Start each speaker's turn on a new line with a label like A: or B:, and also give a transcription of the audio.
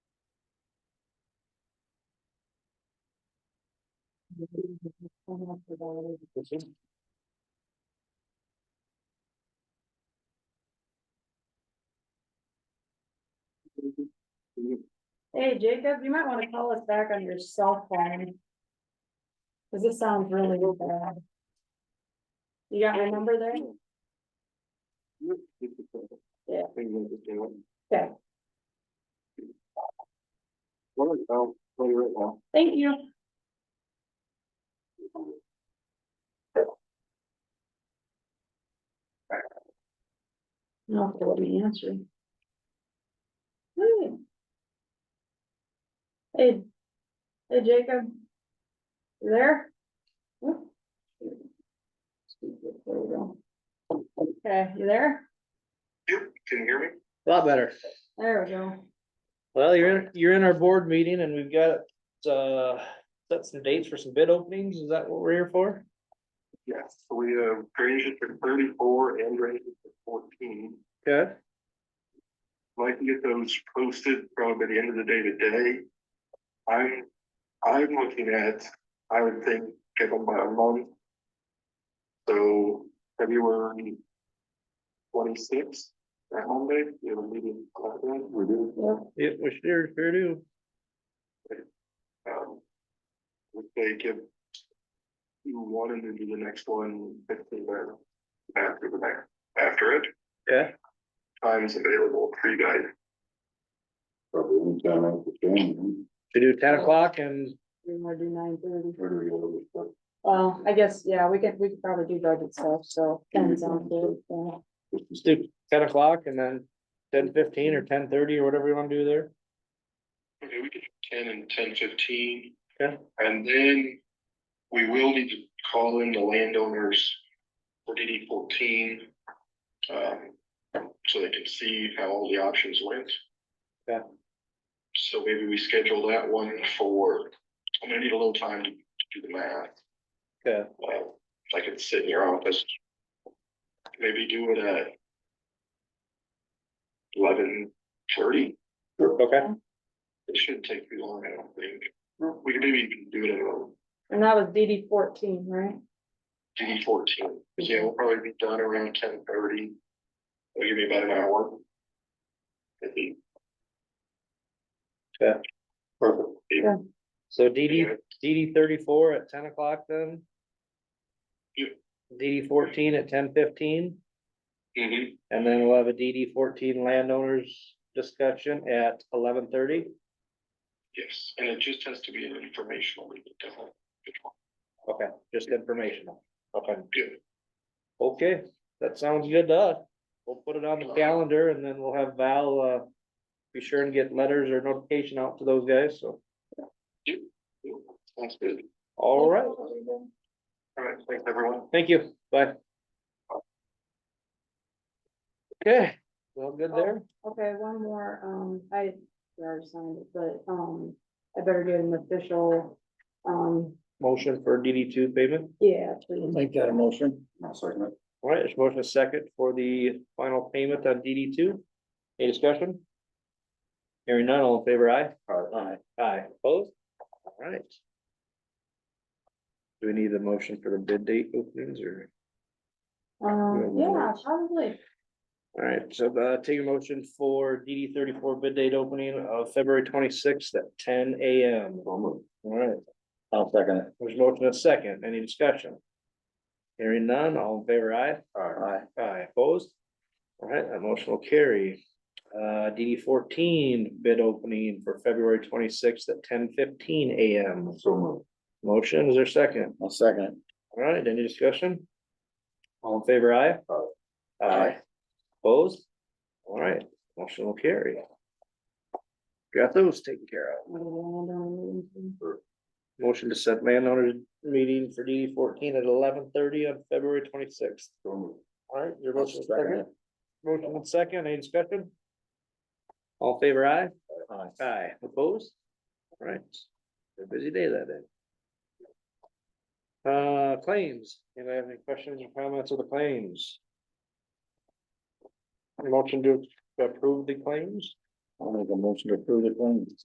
A: Hey Jacob, you might wanna call us back on your cell phone. Cause this sounds really bad. You got my number there? Yeah. Okay.
B: Well, I'll play right now.
A: Thank you. No, they wouldn't answer. Hmm. Hey, hey Jacob. You there? Hmm. There we go. Okay, you there?
B: You, can you hear me?
C: A lot better.
A: There we go.
C: Well, you're, in you're in our board meeting and we've got, uh, set some dates for some bid openings. Is that what we're here for?
B: Yes, so we have Granger for thirty-four and Granger for fourteen.
C: Okay.
B: If I can get those posted probably by the end of the day today. I'm, I'm looking at, I would think, get them by a month. So February twenty-sixth, that Monday, you have a meeting. on that day? We do.
A: Yep.
C: Yeah, we sure, sure do.
B: Um, Would they give? You wanted to do the next one fifteen minutes after the next, after it,
C: Okay.
B: times available for you guys.
D: Probably anytime after ten,
C: We do ten o'clock and,
A: We wanna do nine thirty.
D: where do we go with stuff?
A: Well, I guess, yeah, we could, we could probably do budget stuff, so depends on the, yeah.
C: let's do ten o'clock and then ten fifteen or ten thirty or whatever you wanna do there.
B: Okay, we could do ten and ten fifteen.
C: Okay.
B: And then we will need to call in the landowners for DD fourteen. Um, so they can see how all the options went.
C: Okay.
B: So maybe we schedule that one for, I'm gonna need a little time to to do the math.
C: Okay.
B: Well, if I could sit in your office. Maybe do it at eleven thirty.
C: Okay.
B: It shouldn't take too long, I don't think. We could maybe even do it at um,
A: And that was DD fourteen, right?
B: DD fourteen. Yeah, we'll probably be done around ten thirty. It'll give me about an hour. I think.
C: Yeah.
B: Perfect.
A: Yeah.
C: So DD, DD thirty-four at ten o'clock then?
B: Yep.
C: DD fourteen at ten fifteen?
B: Mhm.
C: And then we'll have a DD fourteen landowners discussion at eleven thirty.
B: yes, and it just has to be an informational meeting. definitely.
C: Okay, just informational. Okay.
B: Good.
C: Okay, that sounds good to us. We'll put it on the calendar and then we'll have Val, uh, be sure and get letters or notification out to those guys, so.
B: Sounds good.
C: All right,
B: All right, thanks, everyone.
C: thank you, bye. Okay, well, good there.
A: Okay, one more, um, I, I already signed it, but, um, I better get an official, um,
C: Motion for DD two payment.
A: yeah, please.
D: Make that a motion. I'll second it.
C: All right, there's motion second for the final payment on DD two. Any discussion? Hearing none, all in favor, aye?
D: Aye.
C: Aye, opposed? Alright. Do we need a motion for the bid date openings or?
A: Um, yeah, probably.
C: Alright, so uh take a motion for DD thirty-four bid date opening of February twenty-sixth at ten AM. Alright,
D: I'll second it.
C: there's a motion and a second, any discussion? Hearing none, all in favor, aye? Aye, opposed? Alright, that motion will carry. Uh, DD fourteen bid opening for February twenty-sixth at ten fifteen AM.
D: So moved.
C: Motion, is there a second?
D: I'll second it.
C: All right, any discussion? All in favor, aye?
D: Aye.
C: Opposed? All right, motion will carry. Got those taken care of. Motion to set landowner meeting for D fourteen at eleven thirty on February twenty-sixth.
D: So moved.
C: All right, your
D: I'll
C: motion is
D: second
C: second.
D: it.
C: Motion is second, any discussion? All in favor, aye? Aye, opposed? All right, a busy day that day. Uh, claims, anybody have any questions or comments on the claims? Motion to approve the claims?
D: I'll make a motion to approve the claims.